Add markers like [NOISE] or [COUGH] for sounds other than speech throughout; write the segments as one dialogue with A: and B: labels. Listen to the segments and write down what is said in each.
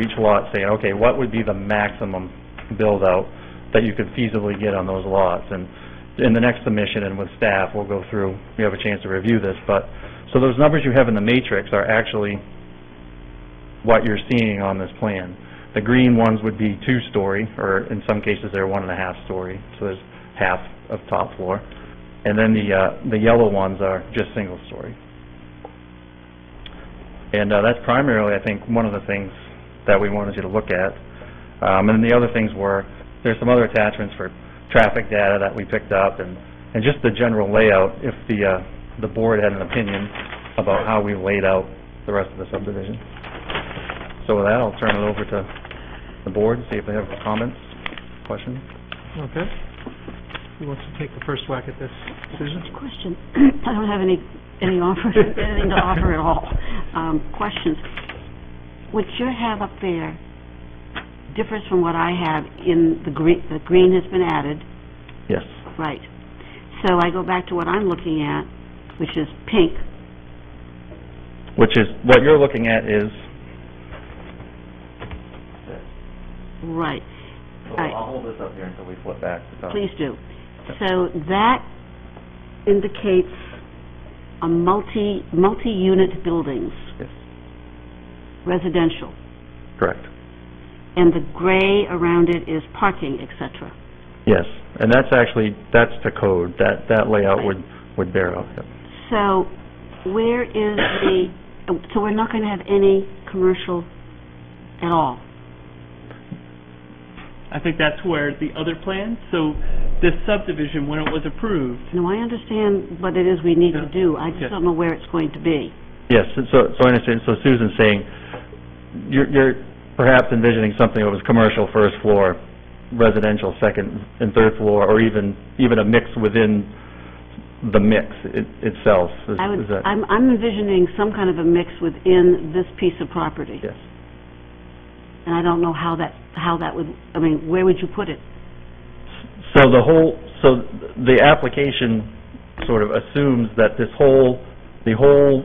A: each lot saying, okay, what would be the maximum build-out that you could feasibly get on those lots? And in the next submission and with staff, we'll go through, we have a chance to review this, but, so those numbers you have in the matrix are actually what you're seeing on this plan. The green ones would be two-story, or in some cases, they're one and a half story, so there's half of top floor. And then the, uh, the yellow ones are just single story. And, uh, that's primarily, I think, one of the things that we wanted you to look at. Um, and the other things were, there's some other attachments for traffic data that we picked up and, and just the general layout, if the, uh, the board had an opinion about how we laid out the rest of the subdivision. So with that, I'll turn it over to the board, see if they have comments, questions.
B: Okay. Who wants to take the first whack at this? Susan?
C: Question. [CLEARS THROAT] I don't have any, any offer, [LAUGHS] anything to offer at all. Um, questions. What you have up there differs from what I have in the green, the green has been added,
A: Yes.
C: right. So I go back to what I'm looking at, which is pink.
A: Which is, what you're looking at is,
C: Right, Right.
A: I'll hold this up here until we flip back. to the-
C: please do. So that indicates a multi, multi-unit buildings,
A: Yes,
C: residential.
A: Correct.
C: And the gray around it is parking, et cetera.
A: Yes, and that's actually, that's the code, that, that layout would, would bear out. yep.
C: So where is the, so we're not going to have any commercial at all?
D: I think that's where the other plan, so this subdivision, when it was approved,
C: Now, I understand what it is we need to do, I
D: Yeah.
C: just don't know where it's going to be.
A: Yes, and so, so I understand, so Susan's saying, you're, you're perhaps envisioning something that was commercial first floor, residential second and third floor, or even, even a mix within the mix it- itself, is
C: I would,
A: is that?
C: I'm I'm envisioning some kind of a mix within this piece of property,
A: Yes.
C: and I don't know how that, how that would, I mean, where would you put it?
A: So the whole, so the application sort of assumes that this whole, the whole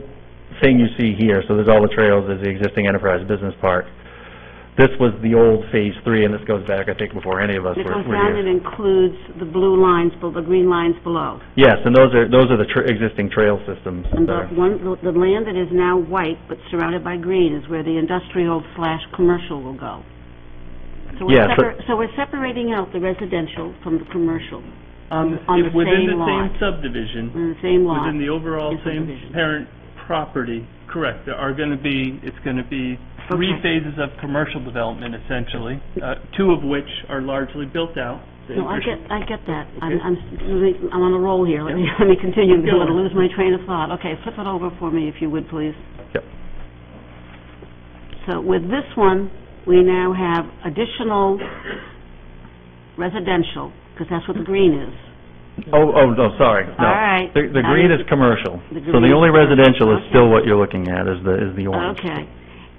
A: thing you see here, so there's all the trails, there's the existing Enterprise Business Park. This was the old Phase Three, and this goes back, I think, before any of us
C: And It
A: were
C: goes
A: were
C: down
A: here.
C: and includes the blue lines, bel- the green lines below.
A: Yes, and those are, those are the tr- existing trail systems
C: And
A: that are,
C: the one, the- the land that is now white but surrounded by green is where the industrial slash commercial will go. So we're
A: Yeah,
C: separ-
A: but-
C: So we're separating out the residential from the commercial
D: on the,
C: On the
D: within the
C: same
D: same
C: lot.
D: subdivision,
C: in the same lot.
D: within the overall
C: is
D: same
C: subdivision.
D: parent property, correct, there are gonna be, it's gonna be three
C: Okay.
D: phases of commercial development essentially, uh, two of which are largely built out. The
C: No, I
D: infra-
C: get, I get that. I'm,
D: Okay.
C: I'm s- really- I'm on a roll here. Let me, [LAUGHS] let me continue.
D: Go
C: I'm going to
D: on.
C: lose my train of thought. Okay, flip it over for me if you would, please.
A: Yep.
C: So with this one, we now have additional residential, because that's what the green is.
A: oh, oh, no, sorry, no.
C: All right.
A: The, the
C: Now
A: green
C: you-
A: is commercial,
C: The
A: so the
C: green-
A: only residential is
C: okay.
A: still what you're looking at, is the, is the orange.
C: Okay.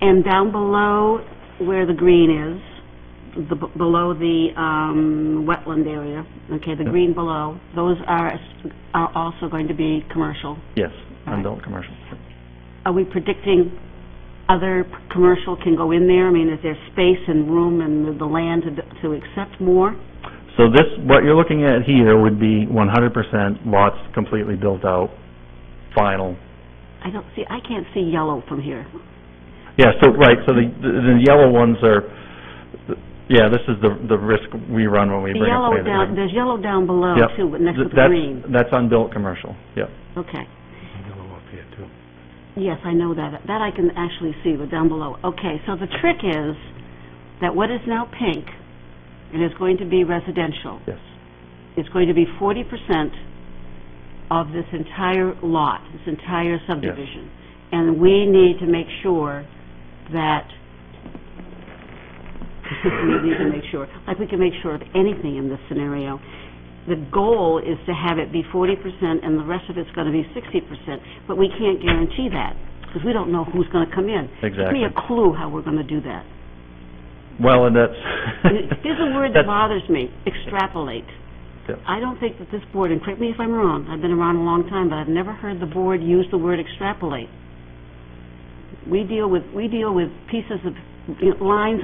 C: And down below where the green is, the, b- below the, um, wetland area, okay, the
A: Yeah.
C: green below, those are, s- are also going to be commercial.
A: Yes,
C: All
A: adult commercial.
C: Are we predicting other p- commercial can go in there? I mean, is there space and room and the- the land to, d- to accept more?
A: So this, what you're looking at here would be one hundred percent lots completely built out, final.
C: I don't see, I can't see yellow from here.
A: Yeah, so, right, so the, the the yellow ones are, yeah, this is the, the risk we run when we
C: The
A: bring a
C: yellow
A: plan.
C: down, there's yellow down below
A: Yep.
C: too, but next to
A: Th-
C: the
A: that's-
C: green.
A: That's unbuilt commercial, yep.
C: Okay.
B: Yellow up here, too.
C: Yes, I know that. That I can actually see, but down below. Okay, so the trick is that what is now pink, and is going to be residential,
A: Yes.
C: is going to be forty percent of this entire lot, this entire subdivision. And we need to make sure that, [LAUGHS] we need to make sure, like we can make sure of anything in this scenario. The goal is to have it be forty percent and the rest of it's gonna be sixty percent, but we can't guarantee that, because we don't know who's gonna come in. Give
A: Exactly.
C: me a clue how we're gonna do that.
A: Well, and that's.
C: There's
A: [LAUGHS]
C: a word
A: that's-
C: that bothers me, extrapolate.
A: Yeah.
C: I don't think that this board, and correct me if I'm wrong, I've been around a long time, but I've never heard the board use the word extrapolate. We deal with, we deal with pieces of you know, lines